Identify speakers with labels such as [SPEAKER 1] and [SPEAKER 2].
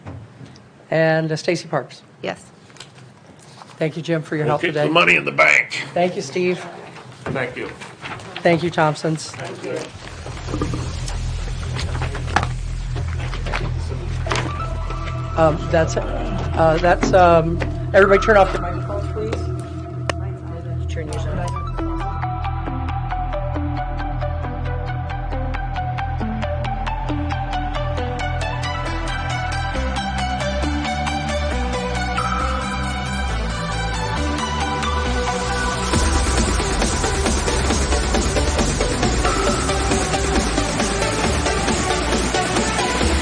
[SPEAKER 1] and uh, Stacy Parks.
[SPEAKER 2] Yes.
[SPEAKER 1] Thank you, Jim, for your
[SPEAKER 3] We'll
[SPEAKER 1] help
[SPEAKER 3] keep the
[SPEAKER 1] today.
[SPEAKER 3] money in the bank.
[SPEAKER 1] Thank you, Steve.
[SPEAKER 3] Thank you.
[SPEAKER 1] Thank you, Thompsons. Um, That's, uh, that's, um, everybody turn off your mic.